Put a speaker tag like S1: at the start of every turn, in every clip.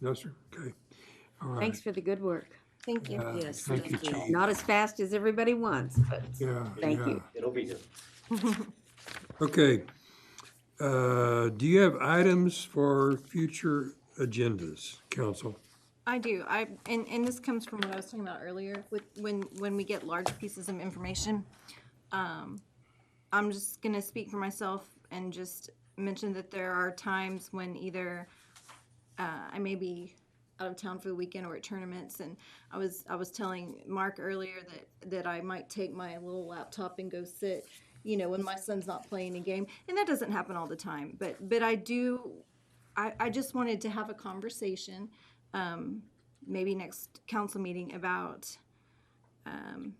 S1: No, sir? Okay. All right.
S2: Thanks for the good work.
S3: Thank you.
S1: Uh,
S4: Yes,
S1: Thank you,
S4: thank you.
S1: Chief.
S2: Not as fast as everybody wants, but
S1: Yeah.
S2: Thank
S1: yeah.
S2: you.
S5: It'll be here.
S1: Okay. Uh, Do you have items for future agendas, council?
S3: I do. I, and, and this comes from what I was talking about earlier with, when, when we get large pieces of information. um, I'm just gonna speak for myself and just mention that there are times when either uh, I may be out of town for the weekend or at tournaments and I was, I was telling Mark earlier that, that I might take my little laptop and go sit, you know, when my son's not playing a game. And that doesn't happen all the time, but, but I do, I, I just wanted to have a conversation maybe next council meeting about um,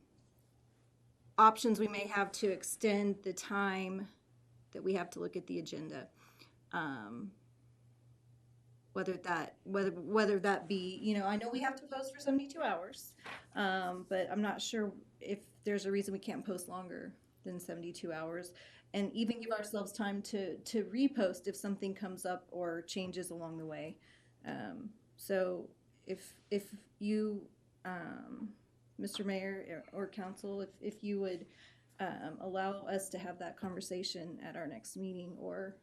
S3: options we may have to extend the time that we have to look at the agenda. Um, Whether that, whether, whether that be, you know, I know we have to post for seventy-two hours, um, but I'm not sure if there's a reason we can't post longer than seventy-two hours. And even give ourselves time to, to repost if something comes up or changes along the way. Um, So if, if you, um, Mr. Mayor or or council, if, if you would, um, allow us to have that conversation at our next meeting or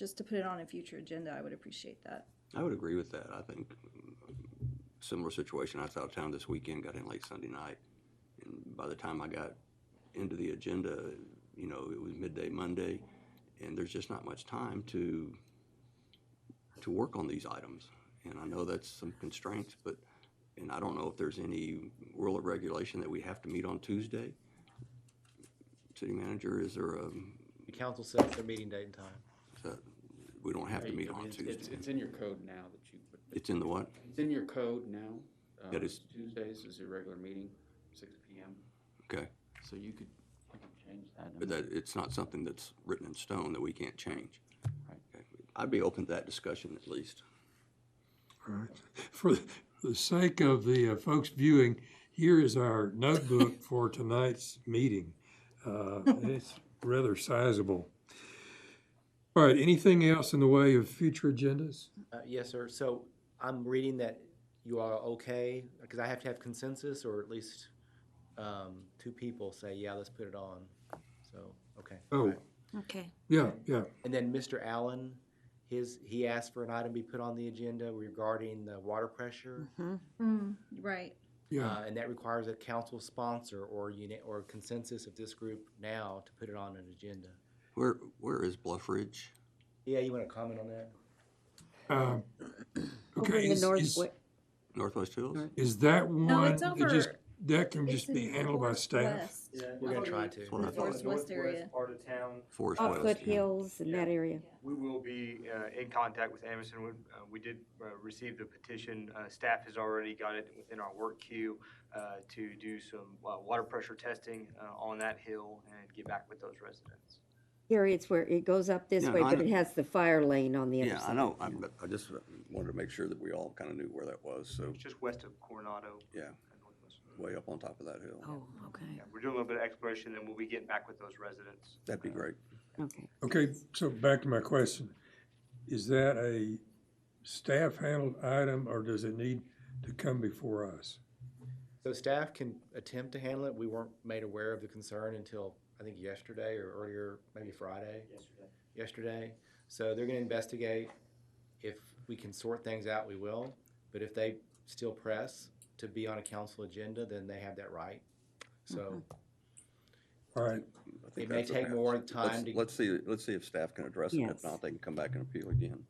S3: just to put it on a future agenda, I would appreciate that.
S6: I would agree with that. I think um, similar situation. I was out of town this weekend, got in late Sunday night, and by the time I got into the agenda, you know, it was midday Monday, and there's just not much time to to work on these items. And I know that's some constraints, but and I don't know if there's any rule of regulation that we have to meet on Tuesday. City manager, is there a
S5: The council sets their meeting date and time.
S6: we don't have to
S7: Right,
S6: meet
S7: I mean,
S6: on
S7: it's- It's, it's
S6: Tuesday.
S7: in your code now that you, but
S6: It's in the what?
S7: it's in your code now. Uh,
S6: That is-
S7: Tuesdays is your regular meeting, six P M.
S6: Okay.
S7: So you could, you could change that. I
S6: But
S7: mean,
S6: that, it's not something that's written in stone that we can't change.
S7: Right.
S6: Okay. I'd be open to that discussion at least.
S1: All right. For the sake of the uh, folks viewing, here is our notebook for tonight's meeting. Uh, It's rather sizable. All right, anything else in the way of future agendas?
S5: Uh, yes, sir. So I'm reading that you are okay, because I have to have consensus or at least, um, two people say, yeah, let's put it on. So, okay.
S1: Oh,
S3: Okay.
S1: yeah, yeah.
S5: And then Mr. Allen, his, he asked for an item be put on the agenda regarding the water pressure.
S6: Mm-hmm.
S3: Mm, Right.
S1: Yeah,
S5: Uh, and that requires a council sponsor or unit, or consensus of this group now to put it on an agenda.
S6: Where, where is Bluff Ridge?
S5: Yeah, you want to comment on that?
S1: um,
S2: uh-huh, over
S1: okay,
S2: in the
S1: is, is,
S2: north,
S6: Northwest Hills?
S2: North-
S1: is that
S3: No,
S1: one
S3: it's
S1: that just,
S3: over-
S1: that can
S3: It's
S1: just be
S3: in
S1: handled by staff?
S3: Northwest.
S8: Yeah.
S5: We're gonna try to.
S6: That's what I thought.
S3: Northwest West area.
S8: Part of town.
S6: Forest
S2: oh,
S6: West. yeah.
S2: foothills and that area.
S8: We will be uh, in contact with Anderson. We- uh, We did uh, receive the petition. Uh, Staff has already got it within our work queue uh, to do some uh, water pressure testing uh, on that hill and get back with those residents.
S2: Here it's where it goes up this
S6: Yeah,
S2: way,
S6: I
S2: but
S6: know.
S2: it has the fire lane on the other
S6: Yeah, I
S2: side.
S6: know. I, but I just wanted to make sure that we all kind of knew where that was. So,
S8: It's just west of Coronado.
S6: yeah,
S8: and northwest.
S6: way up on top of that hill.
S4: Oh, okay.
S8: Yeah, We're doing a little bit of exploration, and we'll be getting back with those residents.
S6: That'd be great.
S2: Okay.
S1: Okay, so back to my question. Is that a staff handled item or does it need to come before us?
S5: So staff can attempt to handle it. We weren't made aware of the concern until, I think, yesterday or earlier, maybe Friday,
S8: Yesterday.
S5: yesterday. So they're gonna investigate. If we can sort things out, we will. But if they still press to be on a council agenda, then they have that right. So
S1: All right,
S6: I think
S5: It may
S6: that's the
S5: take
S6: path.
S5: more
S6: Let's-
S5: time to-
S6: Let's see, let's see if staff can address it.
S2: Yes.
S6: If not, they can come back and appeal again.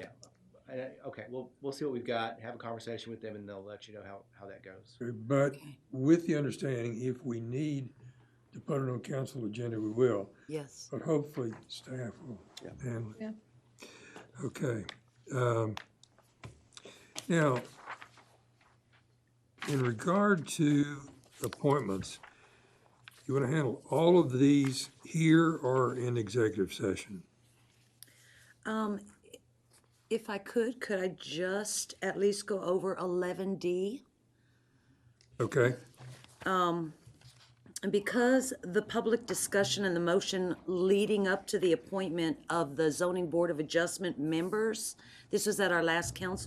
S5: Uh, Okay, well, we'll see what we've got, have a conversation with them, and they'll let you know how, how that goes.
S1: but with the understanding, if we need to put it on council agenda, we will,
S4: Yes.
S1: but hopefully staff will
S6: Yeah.
S1: handle it.
S3: Yeah.
S1: Okay. um, Now, in regard to appointments, you want to handle all of these here or in executive session?
S4: Um, if I could, could I just at least go over eleven D?
S1: Okay,
S4: And because the public discussion and the motion leading up to the appointment of the zoning board of adjustment members, this was at our last council